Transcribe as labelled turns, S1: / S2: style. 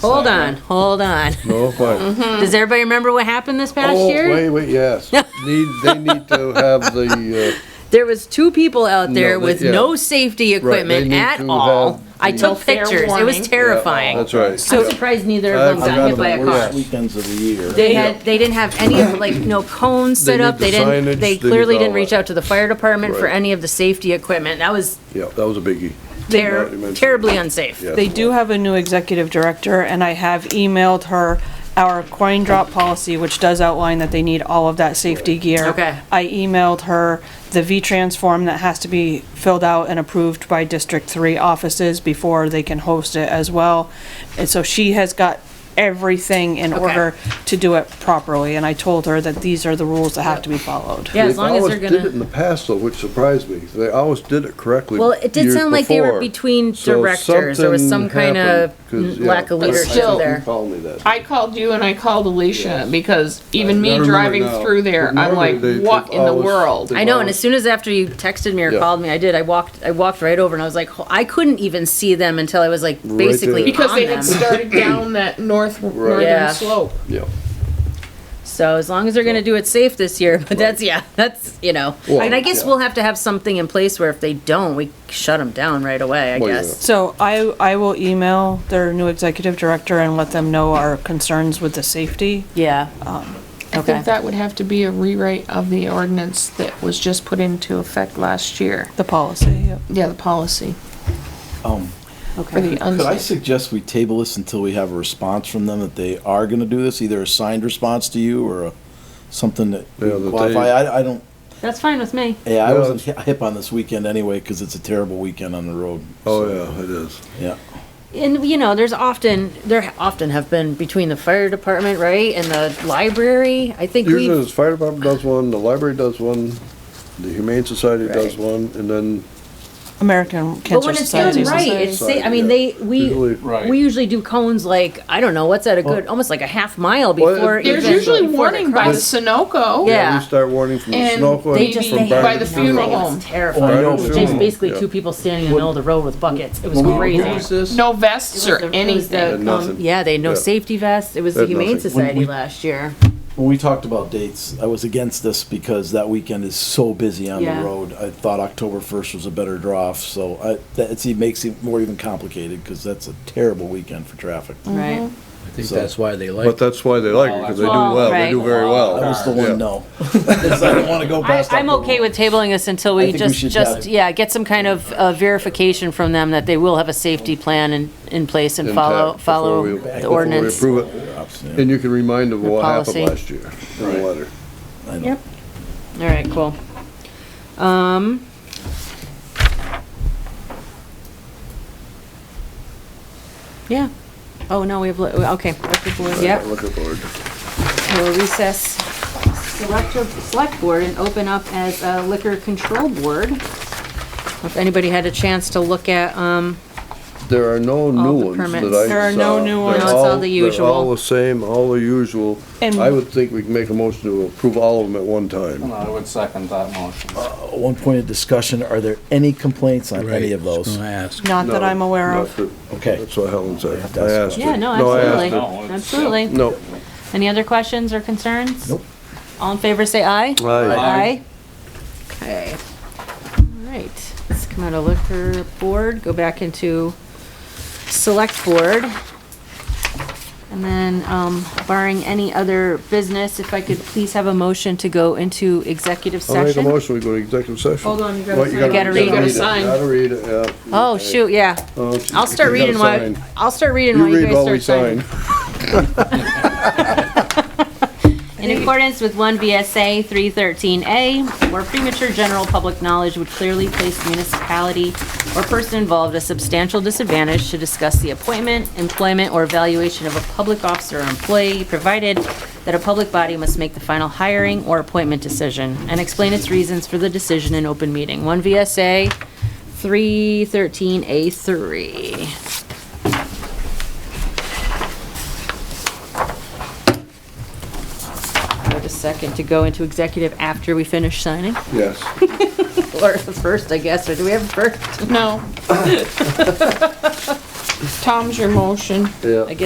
S1: Hold on, hold on.
S2: No, fine.
S1: Does everybody remember what happened this past
S2: Hmm. Oh,
S1: year?
S2: wait, wait, yes. Need, they need to have the, uh,
S1: There was two people out
S2: No,
S1: there
S2: they-
S1: with
S2: yeah.
S1: no safety equipment
S2: need
S1: at
S2: to
S1: all.
S2: have
S1: I
S2: the- oh,
S1: took
S3: No fair
S1: pictures. It was
S3: warning.
S1: terrifying.
S2: that's right.
S1: I'm surprised neither of them
S2: I
S1: got hit
S2: forgot
S1: by a
S2: about
S1: car.
S2: that.
S4: Weekends of the year.
S1: They had, they didn't have any of, like, no cones
S2: They
S1: set
S2: need
S1: up, they
S2: the signage, they
S1: didn't, they
S2: need
S1: clearly
S2: all
S1: didn't
S2: that.
S1: reach out to the fire department for
S2: Right.
S1: any of the safety equipment, that was
S2: Yeah, that was a biggie.
S1: ter-
S2: already mentioned.
S1: terribly unsafe.
S2: Yeah.
S5: They do have a new executive director, and I have emailed her our coin drop policy, which does outline that they need all of that safety gear.
S1: Okay.
S5: I emailed her the V-Trans form that has to be filled out and approved by District Three offices before they can host it as well. And so she has got everything in
S1: Okay.
S5: order to do it properly, and I told her that these are the rules that have to be followed.
S1: Yeah, as long as they're
S2: They always did it
S1: gonna,
S2: in the past though, which surprised me. They always did it correctly.
S1: well, it did
S2: years
S1: sound like they were
S2: before.
S1: between
S2: So
S1: directors, there was some
S2: something
S1: kind of
S2: happened, 'cause, yeah,
S1: lack of
S2: I- I
S1: leadership
S2: think
S1: there.
S2: You called me that.
S3: I called you and I called Alicia
S2: Yes.
S3: because even
S2: I
S3: me
S2: remember
S3: driving
S2: now.
S3: through there,
S2: But
S3: I'm
S2: normally
S3: like,
S2: they
S3: what
S2: took
S3: in the
S2: hours.
S3: world?
S1: I know, and as soon as after you texted me or
S2: Yeah.
S1: called me, I did. I walked, I walked right over, and I was like, ho- I couldn't even see them until I was like basically
S2: there.
S3: Because
S1: on
S3: they
S1: them.
S3: had started down that north, northern
S1: Yeah.
S3: slope.
S2: Yeah.
S1: So as long as they're gonna do it safe this year, but that's yeah, that's you know.
S2: Well,
S1: and I guess
S2: yeah.
S1: we'll have to have something in place where if they don't, we shut them down right away. I
S2: Well, yeah.
S1: guess.
S5: So I, I will email their new executive director and let them know our concerns with the safety.
S1: Yeah. um,
S3: I think that would have to be a rewrite of the ordinance that was just put into effect last year.
S5: The policy, yep.
S3: Yeah, the policy
S4: Um,
S3: for the
S4: Could I
S3: unsafe.
S4: suggest we table this until we have a response from them that they are gonna do this, either a signed response to you or a, something that we
S2: Yeah, that they-
S4: qualify? I, I don't,
S1: That's fine with me.
S4: yeah, I
S2: Yeah,
S4: wasn't hi- hip on this weekend anyway, cause it's a terrible weekend on the road.
S2: Oh,
S4: so,
S2: yeah, it is.
S4: Yeah.
S1: And you know, there's often there often have been between the fire department, right, and the library. I think
S2: Usually
S1: we.
S2: the fire department does one, the library does one, the humane society does
S1: Right.
S2: one, and then
S5: American
S1: But
S5: Cancer
S1: when it's done
S5: Society.
S1: right, it's safe. I mean, they we
S2: Usually-
S1: we usually do cones like I don't know what's at a good, almost like a half mile
S2: Well,
S1: before.
S2: it-
S3: There's
S1: even-
S3: usually
S1: before they
S3: warning by the
S1: cross.
S3: Sunoco.
S1: Yeah.
S2: Yeah, we start warning from the
S3: And
S2: snow.
S3: they
S2: and
S3: just-
S2: from
S3: they-
S2: back
S3: by
S2: to
S3: the funeral
S1: It was
S3: home.
S1: terrifying.
S2: Oh,
S1: It
S2: yeah,
S1: was
S2: the
S1: just
S2: funeral
S1: basically
S2: home,
S1: two people standing in the middle of the road with buckets. It was crazy.
S3: No vests or
S1: It
S3: anything.
S1: was
S2: Had
S1: the- um,
S2: nothing.
S1: Yeah, they had no
S2: Yeah.
S1: safety vests. It was
S2: They
S1: the
S2: had
S1: Humane
S2: nothing.
S1: Society last year.
S4: When we talked about dates, I was against this because that weekend is so busy on
S1: Yeah.
S4: the road. I thought October first was a better draw off, so I, that it's, it makes it more even complicated because that's a terrible weekend for traffic.
S1: Right.
S6: I think
S4: So-
S6: that's why they
S2: But
S6: like it.
S2: that's why they like it, because they do
S1: Well,
S2: well,
S1: right.
S2: they do very
S4: That
S2: well.
S4: was the
S2: Yeah.
S4: one no. 'Cause I don't want to go
S1: I,
S4: past.
S1: I'm
S4: October
S1: okay
S4: one.
S1: with tabling this until
S4: I
S1: we
S4: think we
S1: just,
S4: should
S1: just,
S4: have-
S1: yeah, get some kind of uh, verification from them that they will have a safety plan in, in place and
S2: Intact
S1: follow,
S2: before
S1: follow
S2: we-
S1: the
S2: before we
S1: ordinance.
S2: approve it.
S4: Yeah.
S2: And you can remind them
S1: The
S2: what happened
S1: policy.
S2: last year in the letter.
S4: I know.
S1: Yep. All right, cool. Um. Yeah. Oh, no, we have, li- okay. Yep.
S2: Look at board.
S1: We'll recess select, select board and open up as a liquor control board. If anybody had a chance to look at, um,
S2: There are no
S1: All
S2: new
S1: the
S2: ones
S1: permits.
S2: that I saw.
S5: There are no new
S2: They're
S5: ones.
S1: No, it's all the usual.
S2: They're all the same, all the usual.
S5: And-
S2: I would think we can make a motion to approve all of them at one time.
S7: I would second that motion.
S4: At Uh, One point of discussion, are there any complaints on
S6: Right,
S4: any of
S6: just
S4: those?
S6: gonna ask.
S5: Not that
S2: No,
S5: I'm aware
S2: not
S5: of.
S2: that-
S4: Okay.
S2: That's what Helen said. I
S4: That's-
S2: asked her.
S1: yeah, no,
S2: I asked
S1: absolutely,
S2: her.
S7: No, it's-
S1: absolutely.
S2: No.
S1: Any other questions or concerns?
S4: Nope.
S1: All in favor, say aye.
S2: Aye.
S1: Aye. Okay. All right, let's come out of liquor board, go back into select board. And then, um, barring any other business, if I could please have a motion to go into executive
S2: I'll make a
S1: session?
S2: motion, we go to executive session.
S3: Hold on, you gotta
S2: What,
S3: sign.
S1: You gotta
S2: you
S1: read. You gotta
S2: it.
S3: sign.
S2: Gotta read it, yeah.
S1: Oh, shoot, yeah.
S2: Oh,
S1: I'll
S2: you
S1: start
S2: gotta
S1: reading while,
S2: sign.
S1: I'll start reading
S2: You
S1: while you
S2: read while we
S1: guys start signing.
S2: sign.
S1: In accordance with 1 VSA 313A, where premature general public knowledge would clearly place municipality or person involved at a substantial disadvantage to discuss the appointment, employment, or evaluation of a public officer or employee, provided that a public body must make the final hiring or appointment decision and explain its reasons for the decision in open meeting. 1 VSA 313A3. Wait a second to go into executive after we finish signing,
S2: Yes.
S1: or first, I guess, or do we have a first?
S3: No. Tom's your motion.
S2: Yeah.